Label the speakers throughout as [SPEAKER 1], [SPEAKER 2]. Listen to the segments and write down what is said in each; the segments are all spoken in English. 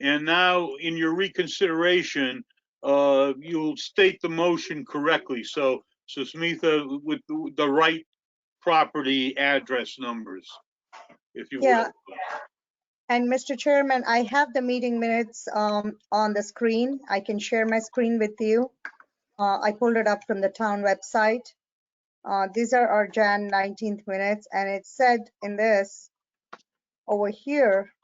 [SPEAKER 1] And now in your reconsideration, uh, you'll state the motion correctly. So, so Smitha, with the- the right property address numbers, if you will.
[SPEAKER 2] Yeah. And Mr. Chairman, I have the meeting minutes um, on the screen. I can share my screen with you. Uh, I pulled it up from the town website. Uh, These are our Jan 19th minutes, and it said in this, over here,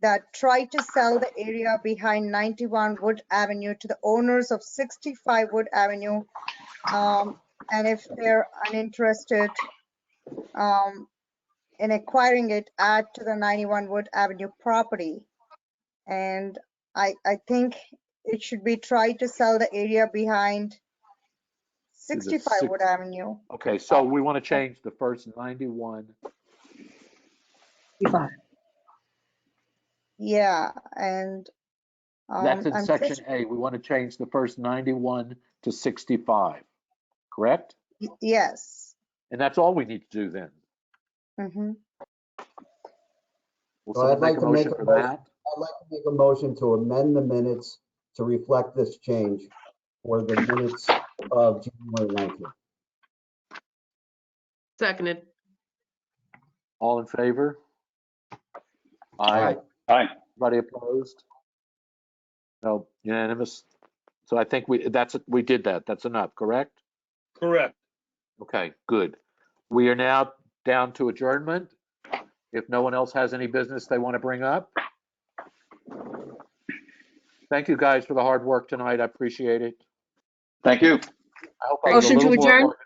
[SPEAKER 2] that try to sell the area behind 91 Wood Avenue to the owners of 65 Wood Avenue. Um, And if they're uninterested, um, in acquiring it add to the 91 Wood Avenue property. And I, I think it should be try to sell the area behind
[SPEAKER 3] Is it
[SPEAKER 2] 65
[SPEAKER 3] six-
[SPEAKER 2] Wood Avenue.
[SPEAKER 3] Okay, so we want to change the first 91.
[SPEAKER 2] Yeah, and. um,
[SPEAKER 3] That's in
[SPEAKER 2] I'm
[SPEAKER 3] section
[SPEAKER 2] just-
[SPEAKER 3] A. We want to change the first 91 to 65, correct?
[SPEAKER 2] y- Yes.
[SPEAKER 3] And that's all we need to do then.
[SPEAKER 2] mhm.
[SPEAKER 3] Will
[SPEAKER 4] Well, I'd
[SPEAKER 3] someone make
[SPEAKER 4] like
[SPEAKER 3] a
[SPEAKER 4] to make
[SPEAKER 3] motion
[SPEAKER 4] a
[SPEAKER 3] for
[SPEAKER 4] motion.
[SPEAKER 3] that?
[SPEAKER 4] I'd like to make a motion to amend the minutes to reflect this change for the minutes of January 19th.
[SPEAKER 5] Seconded.
[SPEAKER 3] All in favor? Aye.
[SPEAKER 6] Aye.
[SPEAKER 3] Anybody opposed? No, unanimous. So I think we, that's, we did that. That's enough, correct?
[SPEAKER 1] Correct.
[SPEAKER 3] Okay, good. We are now down to adjournment. If no one else has any business they want to bring up. Thank you guys for the hard work tonight. I appreciate it.
[SPEAKER 6] Thank you.
[SPEAKER 3] I hope I was a
[SPEAKER 7] Motion to
[SPEAKER 3] little more
[SPEAKER 7] adjourn?
[SPEAKER 3] organized.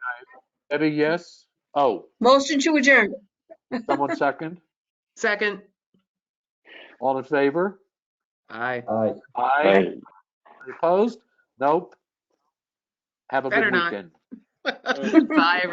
[SPEAKER 3] Debbie, yes? Oh,
[SPEAKER 7] Motion to adjourn.
[SPEAKER 3] someone second?
[SPEAKER 5] Second.
[SPEAKER 3] All in favor?
[SPEAKER 5] Aye.
[SPEAKER 4] Aye.
[SPEAKER 3] Aye. Opposed? Nope. Have a good
[SPEAKER 5] Better not.
[SPEAKER 3] weekend.
[SPEAKER 5] Bye, everyone.